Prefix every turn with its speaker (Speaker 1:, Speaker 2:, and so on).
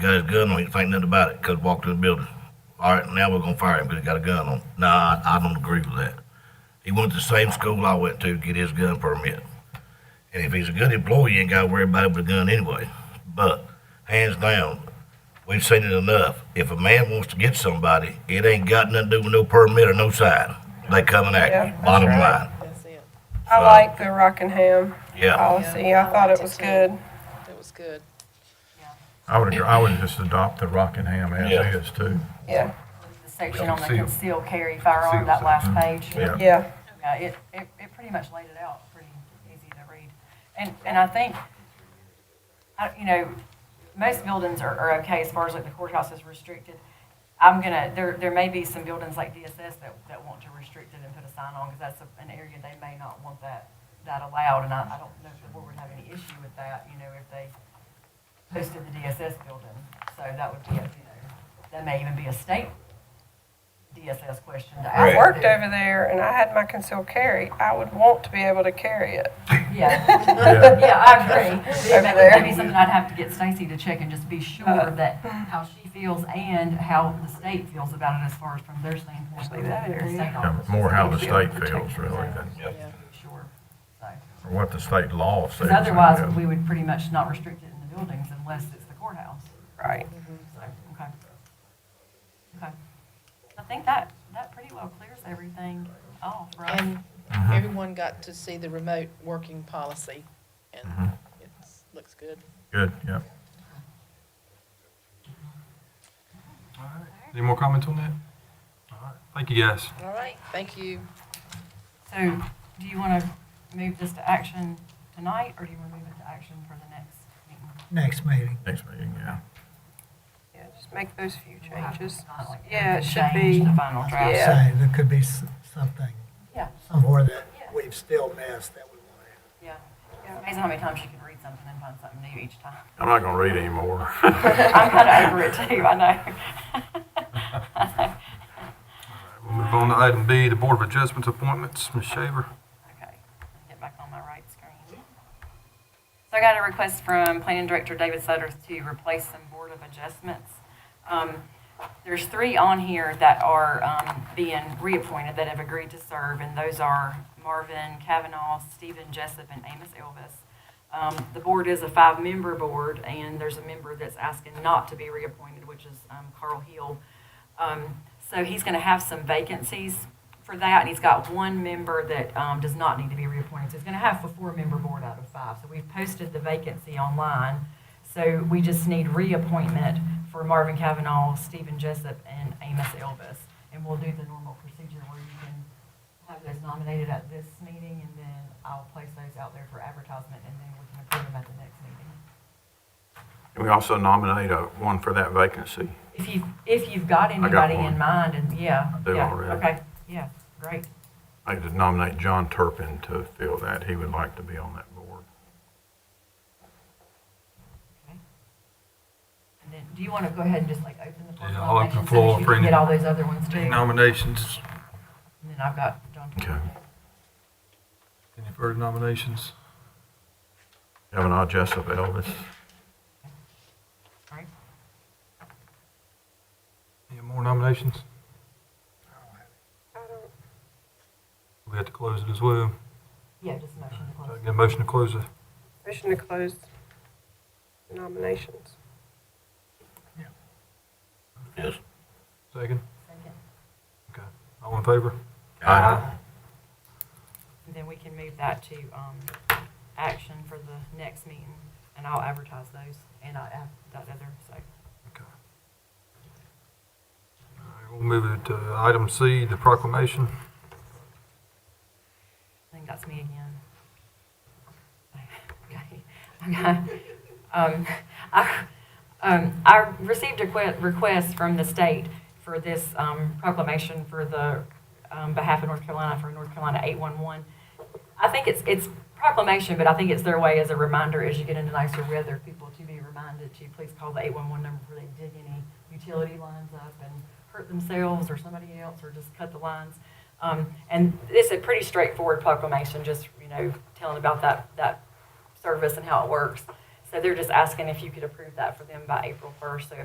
Speaker 1: got his gun on, he didn't think nothing about it, cause walked in the building. All right, now we're gonna fire him, cause he got a gun on. Nah, I, I don't agree with that. He went to the same school I went to to get his gun permit. And if he's a good employee, you ain't gotta worry about it with a gun anyway. But, hands down, we've seen it enough. If a man wants to get somebody, it ain't got nothing to do with no permit or no sign. They coming at
Speaker 2: Yeah,
Speaker 1: you,
Speaker 2: that's
Speaker 1: bottom
Speaker 2: right.
Speaker 1: line.
Speaker 3: That's it.
Speaker 2: I like the Rockingham
Speaker 1: Uh, Yeah,
Speaker 2: policy. I thought it was good.
Speaker 3: It was good.
Speaker 4: I would, agree- I would just adopt the Rockingham
Speaker 1: Yeah.
Speaker 4: as is too.
Speaker 2: Yeah,
Speaker 5: The section on the
Speaker 4: Concealed.
Speaker 5: concealed carry firearm,
Speaker 4: Concealed
Speaker 5: that last
Speaker 4: section.
Speaker 5: page.
Speaker 4: Yeah.
Speaker 2: yeah.
Speaker 5: Yeah, it, it, it pretty much laid it out, pretty easy to read. And, and I think, I, you know, most buildings are, are okay as far as like the courthouse is restricted. I'm gonna, there, there may be some buildings like DSS that, that want to restrict it and put a sign on, because that's a- an area they may not want that, that allowed, and I, I don't know if the board would have any issue with that, you know, if they posted the DSS building. So that would be, a, you know, that may even be a state DSS question to ask.
Speaker 2: I
Speaker 1: Right.
Speaker 2: worked over there and I had my concealed carry. I would want to be able to carry it.
Speaker 5: Yeah,
Speaker 4: Yeah.
Speaker 5: yeah, I agree.
Speaker 2: Over
Speaker 5: That
Speaker 2: there.
Speaker 5: would be something I'd have to get Stacy to check and just be sure that how she feels and how the state feels about it as far as from their standpoint. but
Speaker 2: that
Speaker 5: the
Speaker 2: area.
Speaker 5: state
Speaker 4: Yeah,
Speaker 5: office
Speaker 4: More how the
Speaker 5: is gonna
Speaker 4: state
Speaker 5: be able to
Speaker 4: feels
Speaker 5: protect
Speaker 4: really
Speaker 5: that.
Speaker 4: than
Speaker 1: yeah.
Speaker 5: Sure.
Speaker 4: or what the state law says.
Speaker 5: Because otherwise, we would pretty much not restrict it in the buildings unless it's the courthouse.
Speaker 2: Right.
Speaker 5: So, okay. Okay. I think that, that pretty well clears everything off, right?
Speaker 3: And everyone got to see the remote working policy, and
Speaker 4: Mhm.
Speaker 3: it looks good.
Speaker 4: Good, yeah.
Speaker 6: Any more comments on that? All right. Thank you, guys.
Speaker 3: All right. Thank you.
Speaker 5: So do you want to move this to action tonight, or do you want to move it to action for the next meeting?
Speaker 7: next meeting.
Speaker 4: Next meeting, yeah.
Speaker 2: Yeah, just make those few changes.
Speaker 5: Not like
Speaker 2: Yeah, it should
Speaker 5: change
Speaker 2: be.
Speaker 5: The final draft.
Speaker 2: Yeah.
Speaker 7: Say, there could be s- something
Speaker 5: Yeah,
Speaker 7: somewhere that
Speaker 5: Yeah.
Speaker 7: we've still missed that we want to.
Speaker 5: yeah. It's amazing how many times you can read something and find something new each time.
Speaker 4: I'm not gonna read anymore.
Speaker 5: I'm kind of over it too, I know.
Speaker 6: We'll move on to item B, the Board of Adjustments appointments. Ms. Shaver.
Speaker 5: Okay, get back on my right screen. So I got a request from Planning Director David Sutter to replace some Board of Adjustments. Um, There's three on here that are um, being reappointed that have agreed to serve, and those are Marvin Kavanaugh, Stephen Jessup, and Amos Elvis. Um, The board is a five-member board, and there's a member that's asking not to be reappointed, which is um, Carl Hill. Um, So he's going to have some vacancies for that, and he's got one member that um, does not need to be reappointed. So he's going to have a four-member board out of five. So we've posted the vacancy online. So we just need reappointment for Marvin Kavanaugh, Stephen Jessup, and Amos Elvis. And we'll do the normal procedure where you can have those nominated at this meeting, and then I'll place those out there for advertisement, and then we can approve them at the next meeting.
Speaker 8: We also nominate a, one for that vacancy.
Speaker 5: If you, if you've got
Speaker 8: got
Speaker 5: anybody in
Speaker 8: one.
Speaker 5: mind, and yeah.
Speaker 8: do
Speaker 5: yeah,
Speaker 8: already.
Speaker 5: Okay, yeah, great.
Speaker 8: I could nominate John Turpin to fill that. He would like to be on that board.
Speaker 5: Okay. And then, do you want to go ahead and just like open the floor? for
Speaker 6: Yeah, I'll open
Speaker 5: nominations so that
Speaker 6: the floor
Speaker 5: you
Speaker 6: for
Speaker 5: can
Speaker 6: any-
Speaker 5: Get all those other ones too. And
Speaker 6: Nominations.
Speaker 5: then I've got John.
Speaker 8: Okay.
Speaker 6: Any further nominations?
Speaker 8: Kavanaugh, Jessup, Elvis.
Speaker 5: All right.
Speaker 6: Any more nominations? We have to close it as well.
Speaker 5: Yeah, just a motion to
Speaker 6: So I
Speaker 5: close.
Speaker 6: Get a motion to close it.
Speaker 2: Motion to close nominations.
Speaker 1: Yes.
Speaker 6: Second.
Speaker 5: Second.
Speaker 6: Okay. All in favor?
Speaker 8: Aye.
Speaker 5: And then we can move that to, um, action for the next meeting, and I'll advertise those, and I add that other, so.
Speaker 6: Okay. All right, We'll move it to item C, the proclamation.
Speaker 5: I think that's me again. Okay. Okay. Um, I, um, I received a que- request from the state for this um, proclamation for the um, behalf of North Carolina for North Carolina 811. I think it's it's proclamation, but I think it's their way as a reminder as you get into nicer weather, people to be reminded to please call the 811 number before they dig any utility lines up and hurt themselves or somebody else or just cut the lines. Um, and it's a pretty straightforward proclamation, just you know telling about that that service and how it works. So they're just asking if you could approve that for them by April first, so